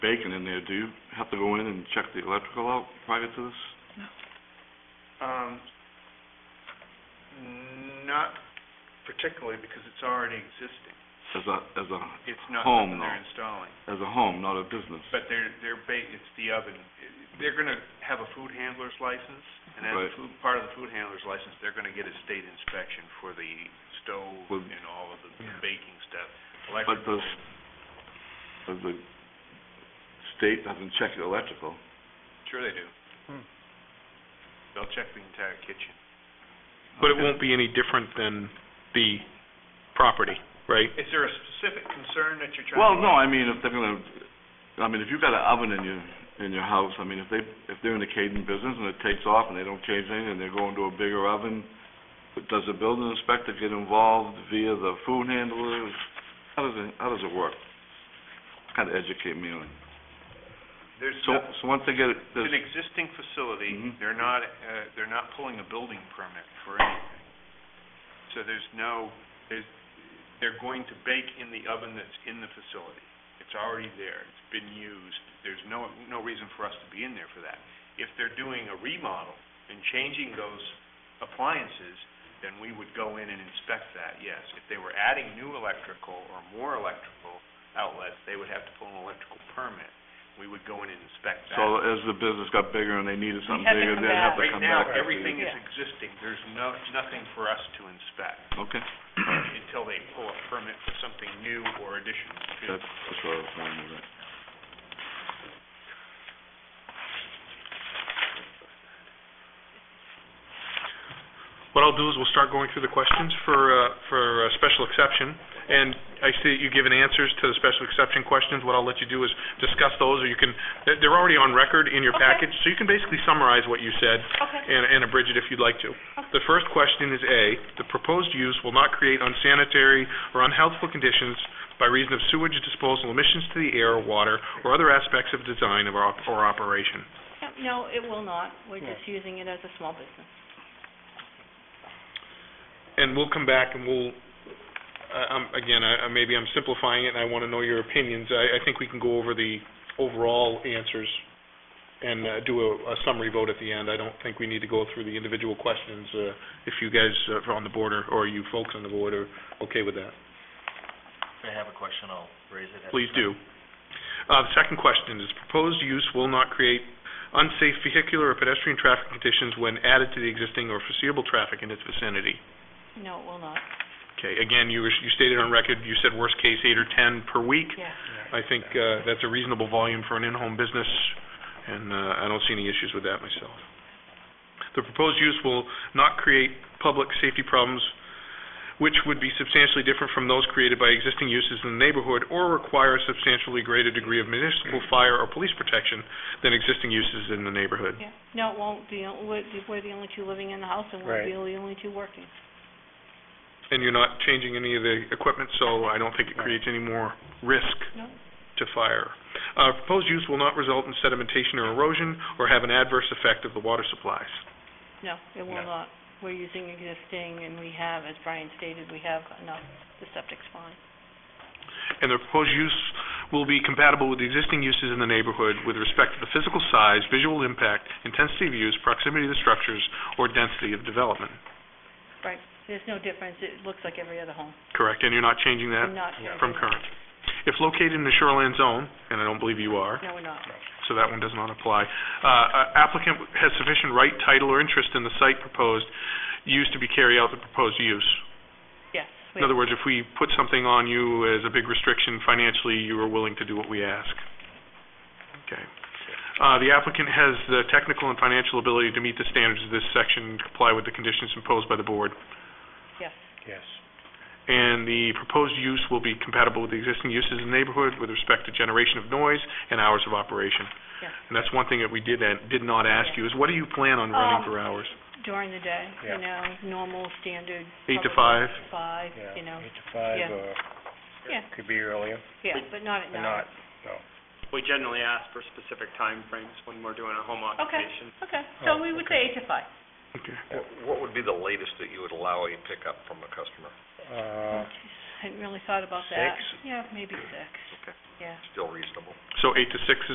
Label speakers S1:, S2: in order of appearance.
S1: bacon in there, do you have to go in and check the electrical out prior to this?
S2: Um, not particularly, because it's already existing.
S1: As a, as a,
S2: It's not
S1: Home,
S2: something they're
S1: though.
S2: installing.
S1: as a home, not a business?
S2: But they're, they're ba, it's the oven. They're gonna have a food handler's license, and as
S1: Right.
S2: a food, part of the food handler's license, they're gonna get a state inspection for the stove
S1: Well-
S2: and all of the the
S1: Yeah.
S2: baking stuff.
S1: But
S2: Electrical,
S1: does, does the state doesn't check the electrical?
S2: sure they do.
S3: Hmm.
S2: They'll check the entire kitchen.
S3: But it won't be any different than the property, right?
S2: Is there a specific concern that you're trying to?
S1: Well, no, I mean, if they're gonna, I mean, if you've got an oven in your, in your house, I mean, if they, if they're in the catering business and it takes off and they don't change anything, and they're going to a bigger oven, but does the building inspector get involved via the food handlers? How does it, how does it work? Kind of educate me on it.
S2: There's
S1: So,
S2: nothing-
S1: so once they get it,
S2: It's
S1: there's,
S2: an existing facility,
S1: Mhm.
S2: they're not, uh, they're not pulling a building permit for anything. So there's no, there's, they're going to bake in the oven that's in the facility. It's already there, it's been used, there's no, no reason for us to be in there for that. If they're doing a remodel and changing those appliances, then we would go in and inspect that, yes. If they were adding new electrical or more electrical outlets, they would have to pull an electrical permit. We would go in and inspect that.
S1: so as the business got bigger and they needed something
S4: had to
S1: bigger,
S4: come
S1: they'd have to
S2: Right
S1: come
S2: now,
S1: back. and see.
S2: everything is
S4: Yeah.
S2: existing, there's no, nothing for us to inspect
S1: Okay,
S2: until they pull a permit for something new or additional to.
S1: that's, that's what I was going with it.
S3: What I'll do is we'll start going through the questions for, uh, for uh, special exception, and I see that you've given answers to the special exception questions. What I'll let you do is discuss those, or you can, they're- they're already on record in your
S4: Okay.
S3: package, so you can basically summarize what you said
S4: Okay,
S3: and and abridge it if you'd like to. The first question is A, the proposed use will not create unsanitary or unhealthful conditions by reason of sewage disposal emissions to the air, water, or other aspects of design of our- or operation.
S4: Yeah, no, it will not, we're just using it as a small business.
S3: and we'll come back and we'll, I- I'm, again, I, I- maybe I'm simplifying it and I want to know your opinions. I, I think we can go over the overall answers and uh, do a a summary vote at the end. I don't think we need to go through the individual questions, uh, if you guys uh, are on the board or, or you folks on the board are okay with that.
S5: If I have a question, I'll raise it. at the
S3: Please
S5: time.
S3: do. Uh, the second question is, proposed use will not create unsafe vehicular or pedestrian traffic conditions when added to the existing or foreseeable traffic in its vicinity.
S4: No, it will not,
S3: Okay, again, you were- you stated on record, you said worst case eight or 10 per week.
S4: yeah.
S3: I think uh, that's a reasonable volume for an in-home business, and uh, I don't see any issues with that myself. The proposed use will not create public safety problems which would be substantially different from those created by existing uses in the neighborhood or require a substantially greater degree of municipal fire or police protection than existing uses in the neighborhood.
S4: Yeah, no, it won't be, we're, we're the only two living in the house, and we're
S5: Right.
S4: the only only two working.
S3: And you're not changing any of the equipment, so I don't think it creates any more risk
S4: No.
S3: to fire. Uh, Proposed use will not result in sedimentation or erosion or have an adverse effect of the water supplies.
S4: No, it will
S5: No.
S4: not, we're using existing, and we have, as Brian stated, we have enough, the septic's fine.
S3: And the proposed use will be compatible with the existing uses in the neighborhood with respect to the physical size, visual impact, intensity of use, proximity to the structures, or density of development.
S4: Right, there's no difference, it looks like every other home,
S3: Correct? And you're not changing
S4: we're
S3: that
S4: not.
S3: from current. If located in the shoreline zone, and I don't believe you are,
S4: No, we're not,
S3: so that one does not apply. Uh, Applicant has sufficient right, title, or interest in the site proposed use to be carry out the proposed use.
S4: yes. we-
S3: In other words, if we put something on you as a big restriction financially, you are willing to do what we ask. Okay. Uh, The applicant has the technical and financial ability to meet the standards of this section, and comply with the conditions imposed by the board,
S4: Yes,
S5: Yes.
S3: and the proposed use will be compatible with the existing uses in the neighborhood with respect to generation of noise and hours of operation.
S4: yes,
S3: And that's one thing that we did, did not ask you, is what do you plan on running
S4: Um,
S3: for hours?
S4: during the day,
S5: Yeah.
S4: you know, normal, standard.
S3: Eight to
S4: probably
S3: five?
S4: Five, you know,
S5: Eight to five,
S4: yeah.
S5: or
S4: yeah,
S5: could be earlier,
S4: yeah, but not at
S5: but
S4: night.
S5: not, no.
S6: We generally ask for specific time frames when we're doing a home occupation.
S4: Okay, so
S5: Oh,
S4: we would say eight to five.
S3: Okay.
S7: What would be the latest that you would allow a pickup from a customer?
S5: Uh,
S4: Hadn't really thought about that.
S5: Six?
S4: Yeah, maybe six. yeah.
S7: Still reasonable.
S3: So eight to six is